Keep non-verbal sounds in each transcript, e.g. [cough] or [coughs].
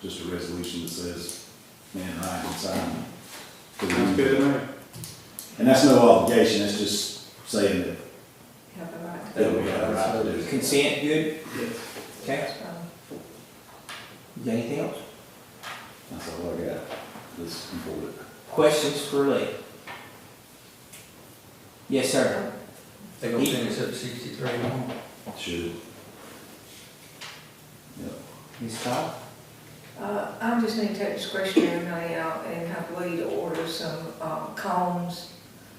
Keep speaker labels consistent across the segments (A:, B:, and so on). A: just a resolution that says, man, Ryan can sign. the
B: Sounds good to me.
A: And that's no obligation, that's just saying that
C: Have the right
A: that we have a right to do. it.
D: Consent, good?
B: Yes.
D: Okay,
C: to vote.
D: Is there anything else?
A: That's all I got, that's important.
D: Questions for Lee? Yes, sir.
E: They gonna finish up sixty-three more.
A: Should. Yep.
D: Ms. Todd?
C: Uh, I just need to take discretionary money out and have Lee to order some, um, combs.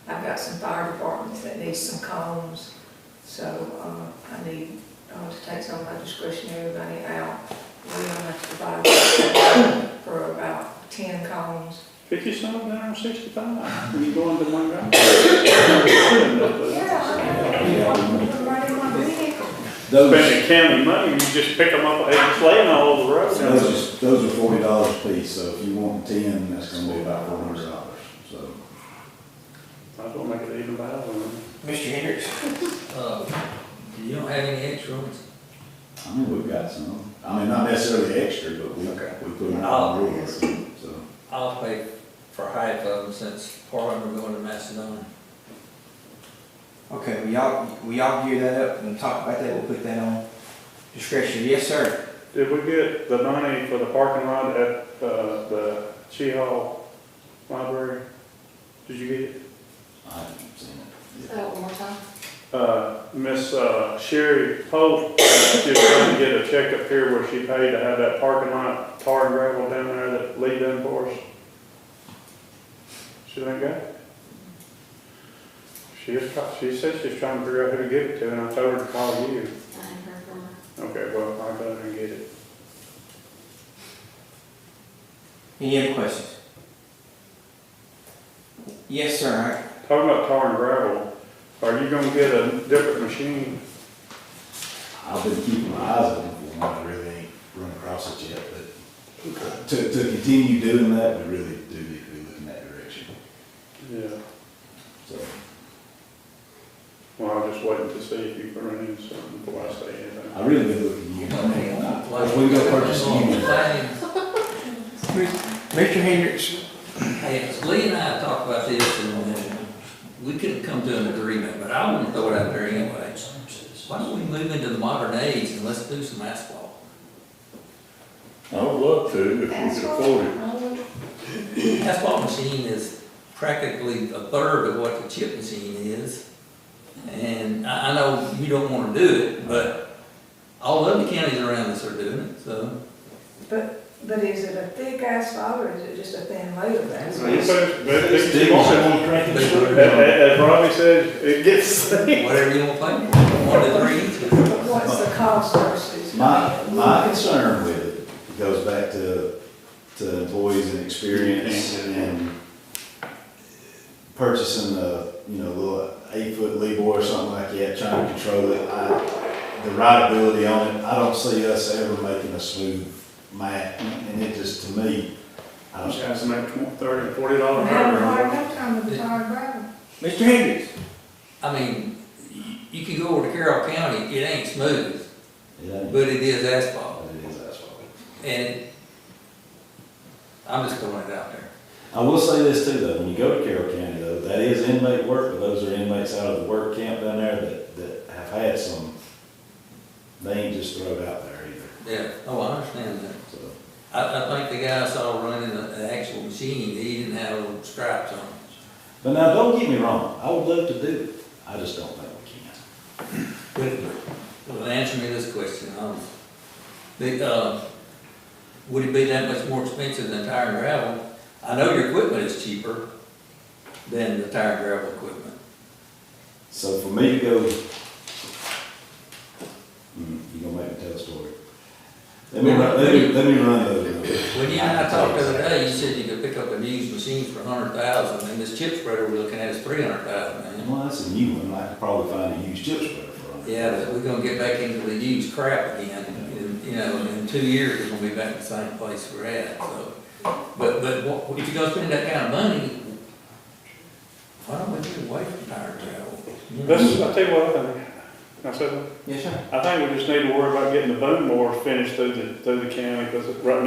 C: I've got some fire departments that need some combs, so, uh, I need, uh, to take some of my discretionary money out. Lee, I'm gonna have to provide for about ten combs.
B: Pick yourself down on sixty-five, when you go into one round.
C: Yeah, I'm gonna put them right in my vehicle.
A: Those,
B: Spending county money, you just pick them up, and lay them all over the road.
A: those, are- those are forty dollars a piece, so if you want ten, that's gonna be about four hundred dollars, so.
B: Might as well make it even better.
D: Mr. Hendricks?
E: Uh, you don't have any insurance?
A: I mean, we've got some, I mean, not necessarily extra, but we, we put them on the rules, so.
E: I'll pay for half of them since part of them are going to Macedonia.
D: Okay, we all, we all gear that up and talk about that, we'll put that on discretion. Yes, sir.
B: Did we get the money for the parking lot at, uh, the Chi Hall Library? Did you get it?
A: I haven't seen it.
F: Say that one more time.
B: Uh, Miss uh, Sherry [coughs] Pope, she was trying to get a check up here where she paid to have that parking lot tar and gravel down there that Lee done for us. She done got it? She was, try- she said she's trying to figure out who to give it to, and I told her to call you.
F: I haven't heard from her.
B: Okay, well, I better and get it.
D: Any other questions? Yes, sir.
B: Talking about tar and gravel, are you gonna get a different machine?
A: I've been keeping my eyes open for them, I really ain't run across it yet, but to, to continue doing that, we really do need to be looking that direction,
B: Yeah.
A: so.
B: Well, I'm just waiting to see if you can run into something before I say anything.
A: I really been looking you, I mean, if we go purchase a new one.
E: Hey,
D: Mr. Hendricks?
E: Lee and I talked about this and uh, we couldn't come to an agreement, but I want to throw it out there anyway. Why don't we move into the modern age and let's do some asphalt?
G: I would love to, if we
F: That's
G: could
F: what
G: afford it.
F: I would-
E: Asphalt machine is practically a third of what the chip machine is. And I, I know you don't wanna do it, but all of the counties around us are doing it, so.
C: But, but is it a thick asphalt or is it just a thin layer of asphalt?
B: You said- but they-
E: Whatever
B: As- As Robbie says, it gets.
E: you wanna play, with, one to three.
C: What's the cost versus?
A: My, my concern with it goes back to, to employees and experience and purchasing a, you know, little eight-foot level or something like that, trying to control it. I- The rideability on it, I don't see us ever making a smooth mat, and it just, to me, I
B: I'm
A: don't,
B: just gonna have to make tw- thirty, forty dollars an
C: Now, hard
B: hour.
C: enough time with the tar and gravel.
D: Mr. Hendricks?
E: I mean, you, you can go over to Carroll County, it ain't smooth,
A: it ain't,
E: but it is asphalt.
A: but it is asphalt.
E: And I'm just throwing it out there.
A: I will say this too, though, when you go to Carroll County, though, that is inmate work, but those are inmates out of the work camp down there that, that have had some, they ain't just thrown out there either,
E: Yeah, oh, I understand that.
A: so.
E: I, I think the guy I saw running a- an actual machine, he didn't have little stripes on it.
A: But now, don't get me wrong, I would love to do it, I just don't think we can.
E: But, well, answer me this question, um, the, uh, would it be that much more expensive than tire and gravel? I know your equipment is cheaper than the tire and gravel equipment.
A: So for me to go, Hmm, you gonna make me tell a story. Let me, run- let me, let me run those numbers.
E: When you and I talked the other day, you said you could pick up a used machine for a hundred thousand, and this chip spreader we're looking at is three hundred thousand, man.
A: Well, that's a new one, I could probably find a used chip spreader for it.
E: Yeah, but we're gonna get back into the used crap again, and, you know, in two years, we're gonna be back in the same place we're at, so. But, but what- if you're gonna spend that kind of money, why don't we get away from tire and gravel?
B: This, I tell you what, I think, I said,
D: Yes, sir.
B: I think we just need to worry about getting the boom board finished through the, through the county, because right